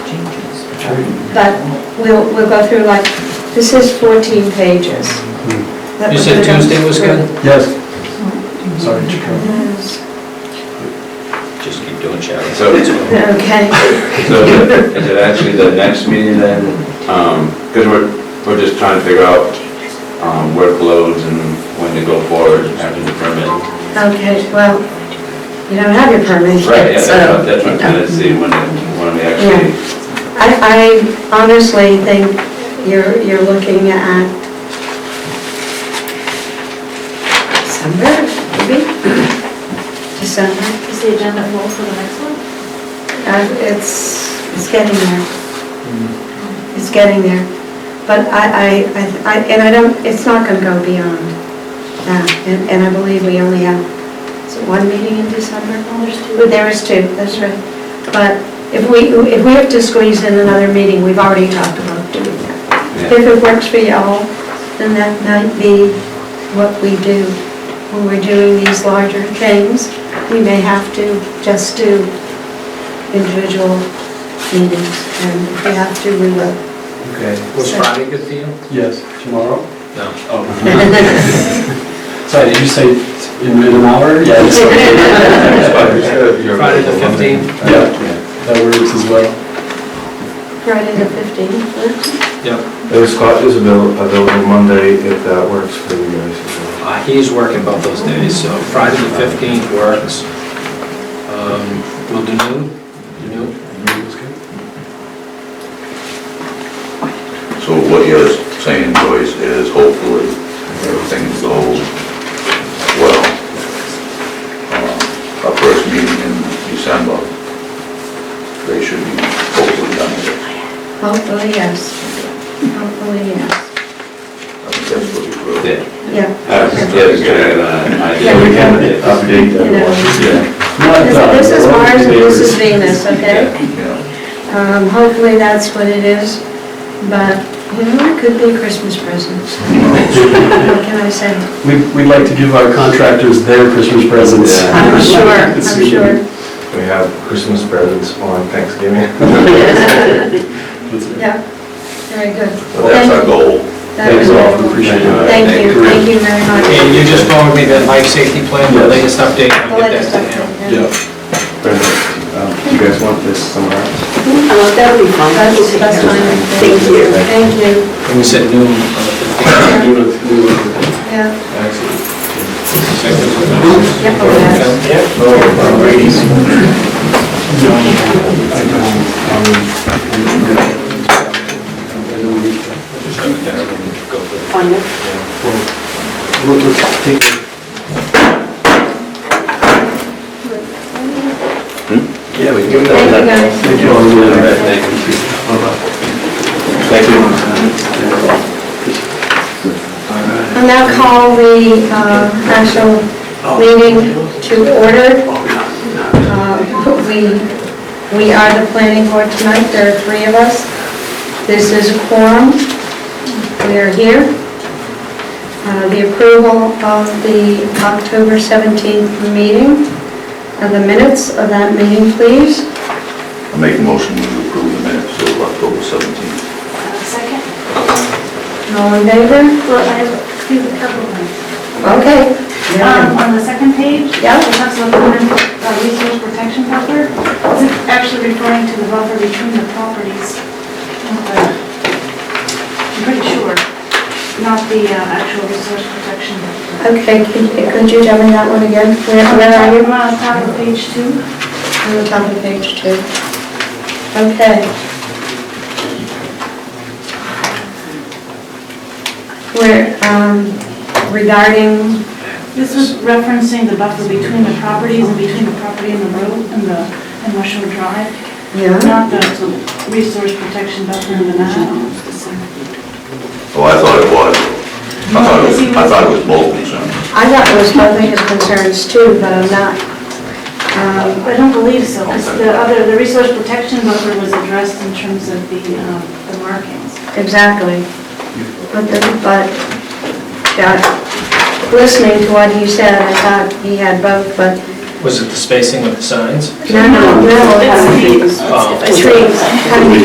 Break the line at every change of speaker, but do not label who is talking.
But we'll, we'll go through like, this is 14 pages. That
You
we're
said
gonna go
Tuesday was
through.
good?
Yes. Sorry, Chico.
Yes.
Just keep doing shadows.
So-
Okay,
So is it- is it actually the next meeting then? Because we're, we're just trying to figure out um, workloads and when to go forward after the permit.
okay, well, you don't have your permit
Right, yeah,
yet,
that's
so.
what, that's what I'm trying to see, when, when we actually,
I, I honestly think you're, you're looking at December, maybe? December,
Is the agenda full for the next one?
Uh, it's, it's getting there. It's getting there. But I, I- I, I, and I don't, it's not gonna go beyond that. And, and I believe we only have, is it one meeting in December? Well, There is two, that's right. But if we, if we have to squeeze in another meeting, we've already talked about doing that.
Yeah.
If it works for y'all, then that might be what we do. When we're doing these larger things, we may have to just do individual meetings. And if we have to, we will.
Okay.
Was Friday good for you?
Yes, tomorrow?
No.
Sorry, did you say in an hour? Yeah. it's okay.
Friday the 15th?
Yeah, that works as well.
Friday the 15th.
Yep.
Scott is avail- available Monday if that works for you guys as well.
Uh, He's working both those days, so Friday the 15th works. Um, We'll do noon? Do noon?
So what you're saying, Joyce, is hopefully everything goes well. Uh, Our first meeting in December, they should be hopefully done with it.
Hopefully, yes. Hopefully, yes.
I think that's what you wrote.
yeah.
Yeah.
I was just getting an idea.
Yeah, we can
update
You know,
Yeah,
Not that,
This this is
but
Mars and this is
neighbors.
Venus, okay?
Yeah.
Um, Hopefully, that's what it is, but, you know, it could be Christmas presents. What can I say?
We, we'd like to give our contractors their Christmas presents.
Yeah.
I'm sure, I'm
It's really-
sure.
We have Christmas presents on Thanksgiving.
That's it.
Yeah, very good.
So that's our goal.
That
Thanks a
was
lot,
wonderful.
appreciate it.
Thank you, thank you very much.
And you just forwarded me that life safety plan, the latest update,
The
I'll get
latest
that to him.
update, yeah.
Yeah.
You guys want this somewhere
Oh,
else?
that would be fun.
That's, that's fine.
Thank you.
Thank you,
And we said noon on the 15th.
Do it- do it.
yeah. Yep, okay.
Okay.
Oh, ladies.
Fun.
Look, look, take it.
Yeah, we give
Thank you, guys.
Thank you all. Yeah.
Thank you.
I'll now call the uh, national meeting to order. Uh, We we are the planning board tonight, there are three of us. This is a quorum, we are here. Uh, The approval of the October 17th meeting, and the minutes of that meeting, please.
I make a motion to approve the minutes of October 17th.
Second?
All in favor?
Well, I have a couple of things.
Okay.
Um, On the second page,
Yeah.
it talks about the women, uh, resource protection buffer. It's actually referring to the buffer between the properties. I'm pretty sure, not the uh, actual resource protection. buffer.
Okay, could could you tell me that one again? Where where are you?
On the top uh, of page two.
On the top of page two. Okay. We're um, regarding,
This was referencing the buffer between the properties and between the property and the road and the, and West Shore Drive.
yeah,
Not the resource protection buffer in the map.
Oh, I thought it was. I thought it was, I thought it was both concerns.
I thought it was both of his concerns too, but I'm not. um,
I don't believe so, 'cause the other, the resource protection buffer was addressed in terms of the, um, the markings.
Exactly. But, the- but, yeah, listening to what he said, I thought he had both, but,
Was it the spacing of the signs?
no, no, no.
It's the-
Trees, having